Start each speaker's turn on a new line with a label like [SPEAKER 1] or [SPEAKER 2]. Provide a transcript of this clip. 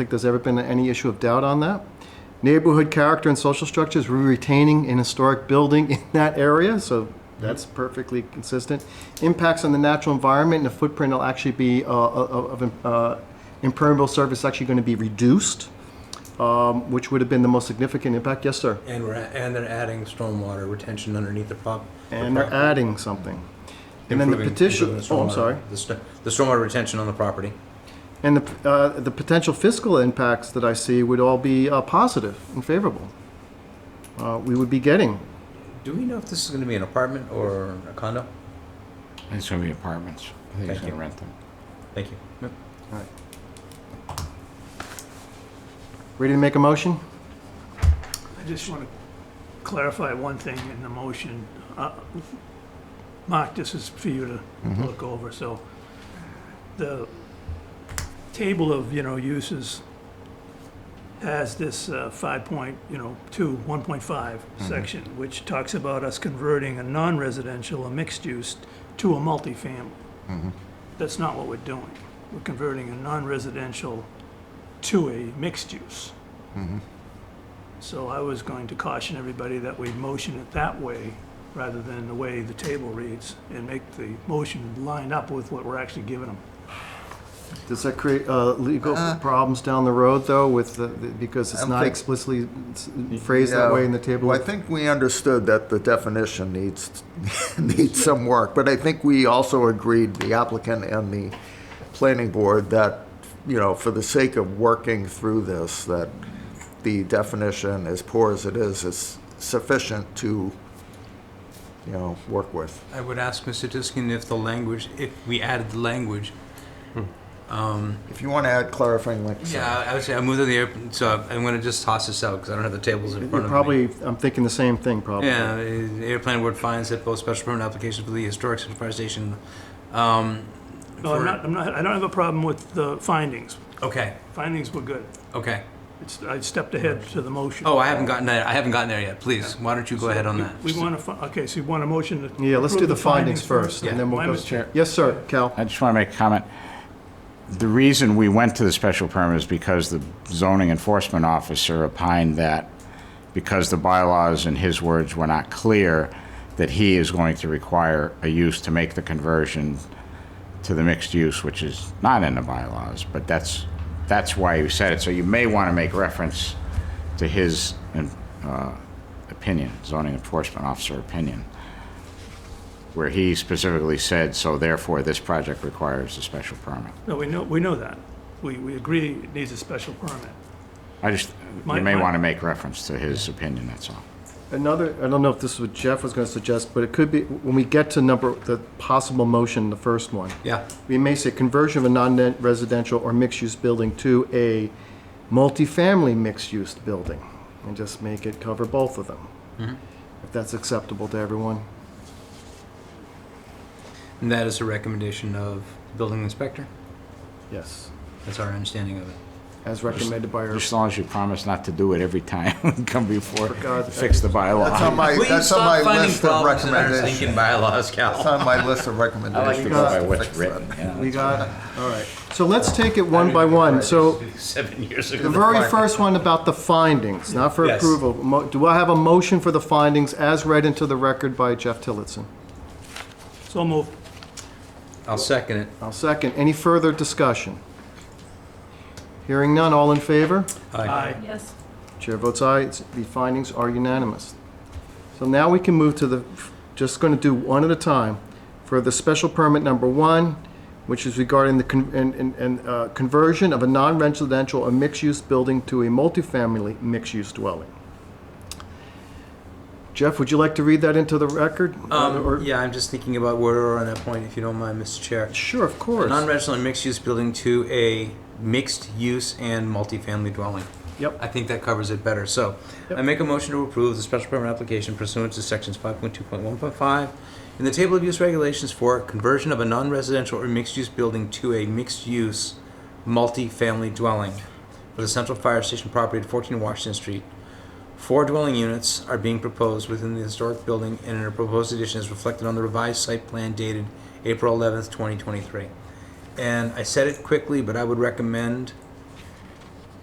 [SPEAKER 1] think there's ever been any issue of doubt on that. Neighborhood character and social structures, we're retaining an historic building in that area, so that's perfectly consistent. Impacts on the natural environment and the footprint will actually be, uh, of, of, uh, impermeable surface actually going to be reduced, um, which would have been the most significant impact. Yes, sir.
[SPEAKER 2] And we're, and they're adding stormwater retention underneath the prop. the
[SPEAKER 1] And they're
[SPEAKER 2] property.
[SPEAKER 1] adding something. And then the
[SPEAKER 2] Improving-
[SPEAKER 1] petition,
[SPEAKER 2] improving the
[SPEAKER 1] oh, I'm
[SPEAKER 2] stormwater-
[SPEAKER 1] sorry.
[SPEAKER 2] The sto- the stormwater retention on the property.
[SPEAKER 1] And the, uh, the potential fiscal impacts that I see would all be uh, positive and favorable. Uh, we would be getting,
[SPEAKER 2] Do we know if this is gonna be an apartment or a condo?
[SPEAKER 3] It's gonna be apartments. I think he's
[SPEAKER 2] Thank you.
[SPEAKER 3] gonna rent them.
[SPEAKER 2] Thank you. Yep.
[SPEAKER 1] ready to make a motion?
[SPEAKER 4] I just want to clarify one thing in the motion. Uh, Mark, this is for you to look over, so the table of, you know, uses has this uh, five point, you know, two, one point five section, which talks about us converting a non-residential, a mixed use, to a multifamily. That's not what we're doing. We're converting a non-residential to a mixed use. So I was going to caution everybody that we motion it that way rather than the way the table reads and make the motion line up with what we're actually giving them.
[SPEAKER 1] Does that create uh, legal problems down the road, though, with the, the- because it's
[SPEAKER 5] I'm
[SPEAKER 1] not
[SPEAKER 5] think-
[SPEAKER 1] explicitly s- phrased that
[SPEAKER 5] Yeah.
[SPEAKER 1] way in the table?
[SPEAKER 5] Well, I think we understood that the definition needs, needs some work, but I think we also agreed, the applicant and the planning board, that, you know, for the sake of working through this, that the definition, as poor as it is, is sufficient to, you know, work with.
[SPEAKER 2] I would ask Mr. Tuskin if the language, if we added the language. Um,
[SPEAKER 5] If you want to add clarifying links.
[SPEAKER 2] yeah, I- I would say I moved to the, air- so I'm gonna just toss this out because I don't have the tables in front of
[SPEAKER 1] You're
[SPEAKER 2] me.
[SPEAKER 1] probably, I'm thinking the same thing, probably.
[SPEAKER 2] Yeah, eh, the air planning board finds that both special permit applications for the historic and fire station, um.
[SPEAKER 4] No, I'm
[SPEAKER 2] for-
[SPEAKER 4] not, I'm not, I don't have a problem with the findings.
[SPEAKER 2] Okay,
[SPEAKER 4] Findings were good.
[SPEAKER 2] okay.
[SPEAKER 4] It's, I stepped ahead to the motion.
[SPEAKER 2] Oh, I haven't gotten there, I haven't gotten there yet, please, why don't you go ahead on
[SPEAKER 4] We-
[SPEAKER 2] that?
[SPEAKER 4] We want to, okay, so you want a motion to.
[SPEAKER 1] Yeah, let's do
[SPEAKER 4] approve
[SPEAKER 1] the findings first,
[SPEAKER 2] Yeah.
[SPEAKER 1] and then we'll
[SPEAKER 4] My
[SPEAKER 1] go.
[SPEAKER 4] mistake.
[SPEAKER 1] Yes, sir, Cal.
[SPEAKER 3] I just want to make a comment. The reason we went to the special permit is because the zoning enforcement officer opined that because the bylaws, in his words, were not clear, that he is going to require a use to make the conversion to the mixed use, which is not in the bylaws, but that's, that's why he said it. So you may want to make reference to his uh, opinion, zoning enforcement officer opinion where he specifically said, so therefore this project requires a special permit.
[SPEAKER 4] No, we know, we know that. We, we agree it needs a special permit.
[SPEAKER 3] I just,
[SPEAKER 4] My-
[SPEAKER 3] you may
[SPEAKER 4] my-
[SPEAKER 3] want to make reference to his opinion, that's all.
[SPEAKER 1] Another, I don't know if this is what Jeff was going to suggest, but it could be, when we get to number, the possible motion, the first one,
[SPEAKER 2] Yeah,
[SPEAKER 1] we may say conversion of a non-residential or mixed-use building to a multifamily mixed-use building, and just make it cover both of them.
[SPEAKER 2] Mm-hmm.
[SPEAKER 1] If that's acceptable to everyone.
[SPEAKER 2] and that is a recommendation of building inspector,
[SPEAKER 1] Yes.
[SPEAKER 2] that's our understanding of it.
[SPEAKER 1] As recommended by our,
[SPEAKER 3] Just as long as you promise not to do it every time we come before,
[SPEAKER 1] For God's sake.
[SPEAKER 3] fix the
[SPEAKER 5] That's on
[SPEAKER 3] bylaw.
[SPEAKER 5] my, that's on my list of recommendations.
[SPEAKER 2] thinking bylaws,
[SPEAKER 5] That's
[SPEAKER 2] Cal.
[SPEAKER 5] on my list of
[SPEAKER 3] I like to
[SPEAKER 5] recommendations.
[SPEAKER 3] go by
[SPEAKER 5] to
[SPEAKER 3] what's
[SPEAKER 5] fix that.
[SPEAKER 3] written, yeah.
[SPEAKER 1] we got, all right. So let's take it one by one. So
[SPEAKER 2] Seven years
[SPEAKER 1] the
[SPEAKER 2] ago.
[SPEAKER 1] very first one about the findings, not for
[SPEAKER 2] Yes.
[SPEAKER 1] approval. Mo- Do I have a motion for the findings as read into the record by Jeff Tillotson?
[SPEAKER 4] So move.
[SPEAKER 2] I'll second it.
[SPEAKER 1] I'll second. Any further discussion? Hearing none, all in favor?
[SPEAKER 4] Aye.
[SPEAKER 6] Yes.
[SPEAKER 1] Chair votes aye. It's- The findings are unanimous. So now we can move to the, just going to do one at a time, for the special permit number one, which is regarding the con- and- and- and, uh, conversion of a non-residential or mixed-use building to a multifamily mixed-use dwelling. Jeff, would you like to read that into the record? Or-
[SPEAKER 2] Um, yeah, I'm just thinking about where we're on that point, if you don't mind, Mr. Chair.
[SPEAKER 1] Sure, of
[SPEAKER 2] A
[SPEAKER 1] course.
[SPEAKER 2] Non-residential and mixed-use building to a mixed-use and multifamily dwelling.
[SPEAKER 1] Yep.
[SPEAKER 2] I think that covers it better. So I make a motion to approve the special permit application pursuant to sections 5.2.1.5 in the table of use regulations for conversion of a non-residential or mixed-use building to a mixed-use multifamily dwelling for the central fire station property at 14 Washington Street. Four dwelling units are being proposed within the historic building and a proposed addition is reflected on the revised site plan dated April 11th, 2023. And I said it quickly, but I would recommend